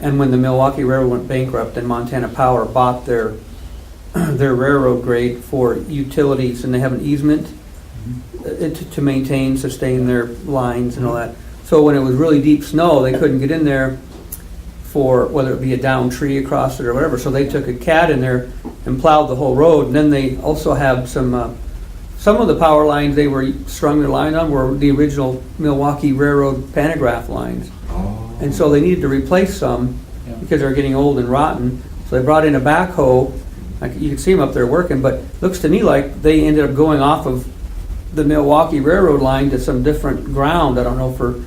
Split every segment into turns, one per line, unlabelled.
And when the Milwaukee Railroad went bankrupt and Montana Power bought their, their railroad grade for utilities and they have an easement uh, to, to maintain, sustain their lines and all that. So when it was really deep snow, they couldn't get in there for, whether it be a down tree across it or whatever. So they took a cat in there and plowed the whole road. And then they also have some, uh, some of the power lines they were strung their line on were the original Milwaukee Railroad pantograph lines.
Oh.
And so they needed to replace some
Yeah.
because they were getting old and rotten. So they brought in a backhoe. Like you can see them up there working, but looks to me like they ended up going off of the Milwaukee Railroad line to some different ground. I don't know for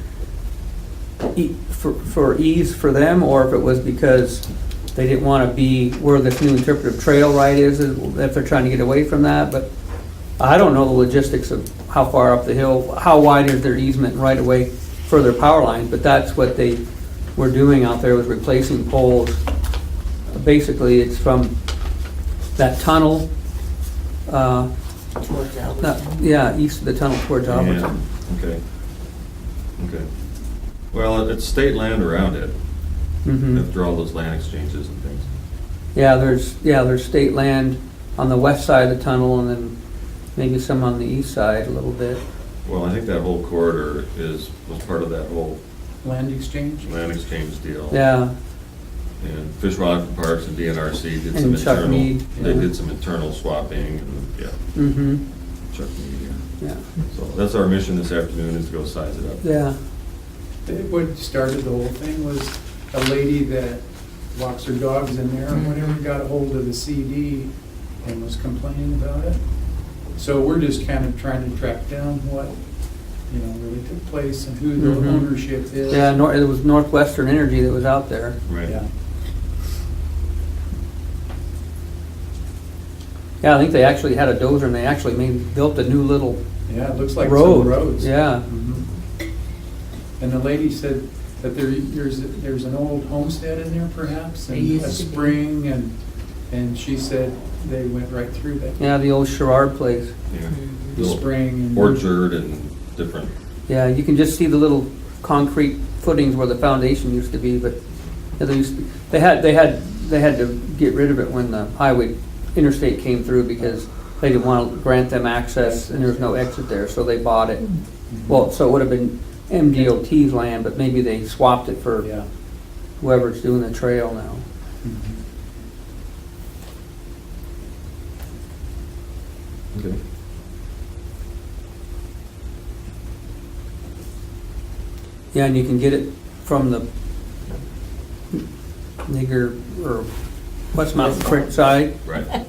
e- for, for ease for them or if it was because they didn't want to be where this new interpretive trail right is, if they're trying to get away from that. But I don't know the logistics of how far up the hill, how wide is their easement right away for their power line, but that's what they were doing out there was replacing poles. Basically, it's from that tunnel, uh,
towards
not-
Albertson.
yeah, east of the tunnel towards
Yeah,
Albertson.
okay. Okay. Well, it's state land around it,
Mhm.
after all those land exchanges and things.
Yeah, there's, yeah, there's state land on the west side of the tunnel and then maybe some on the east side a little bit.
Well, I think that whole corridor is, was part of that whole
Land exchange?
land exchange deal.
Yeah,
And Fish Wildlife and Parks and DNRC did some
And Chuck
internal,
Mead,
they
yeah.
did some internal swapping, and, yeah,
hmm
Chuck Mead, yeah.
yeah,
So that's our mission this afternoon, is to go size it up.
Mm-hmm. yeah,
What started the whole thing was a lady that walks her dogs in there,
Mm-hmm.
and whatever got a hold of the CD and was complaining about it. So we're just kind of trying to track down what, you know, really took place and who
Mhm.
Mm-hmm.
the ownership is.
yeah, nor, it was Northwestern Energy that was out there.
Right.
Yeah.
Yeah, I think they actually had a dozer and they actually made, built a new little
Yeah, it looks like some
road.
roads.
Yeah,
Mhm. And the lady said that there, there's, there's an old homestead in there perhaps,
It
and
used
a
to be.
spring, and, and she said they went right through that.
yeah, the old Sherrard place.
Yeah.
Mhm.
The
Little
spring and.
Orchard and different,
Yeah, you can just see the little concrete footings where the foundation used to be, but yeah, they used, they had, they had, they had to get rid of it when the highway interstate came through because they didn't want to grant them access and there was no exit there, so they bought it. Well, so it would have been MDOT's land, but maybe they swapped it for
Yeah.
whoever's doing the trail now.
Mm-hmm.
okay.
Yeah, and you can get it from the nigger or West Mountain Creek side,
right,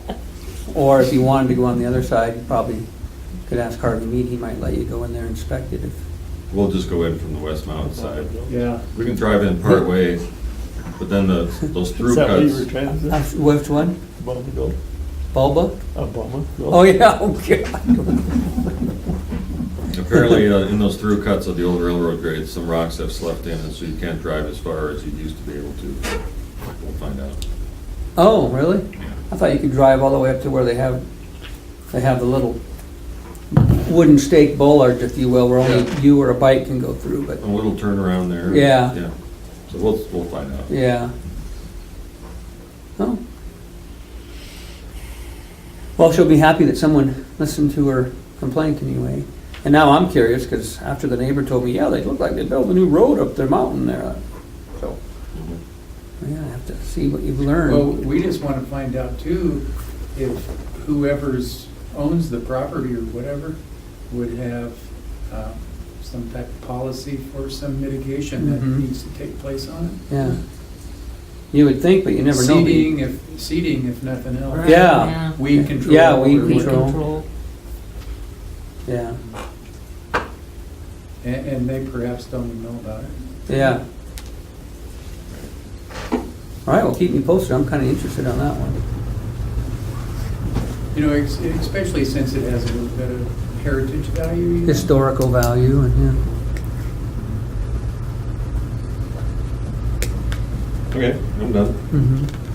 or if you wanted to go on the other side, you probably could ask Harvey Mead, he might let you go in there and inspect it. if-
we'll just go in from the West Mountain side.
Yeah.
We can drive in part way, but then the, those through
Is that what you were
cuts,
trying to
Uh, Which one?
say? Bum go,
Bulba?
a bum go.
Oh, yeah, oh, God.
apparently uh, in those through cuts of the old railroad grade, some rocks have slept in, and so you can't drive as far as you used to be able to. We'll find out.
Oh, really? I thought you could drive all the way up to where they have, they have the little wooden stake bollards, if you will, where only
Yeah.
you or a bike can go through, but,
A little turnaround there.
Yeah.
Yeah, so we'll, we'll find out.
yeah. Oh. Well, she'll be happy that someone listened to her complaint anyway. And now I'm curious, because after the neighbor told me, yeah, they look like they built a new road up their mountain there. So,
Mhm.
yeah, I have to see what you've
Mm-hmm. Well,
learned.
we just want to find out too, if whoever's owns the property or whatever would have um, some type of policy for some mitigation that
Mhm.
needs to take place on it.
Yeah. You would think, but you never know. do you?
Seeding if, seeding if nothing else.
Right,
Yeah.
Weed control.
Yeah, weed
or
Weed
whatever.
control.
control.
Yeah,
And, and they perhaps don't even know about it.
yeah. All right, well, keep me posted, I'm kind of interested on that one.
You know, ex- especially since it has a little bit of heritage value. you know?
Historical value and, yeah.
Okay, I'm done.
Mhm.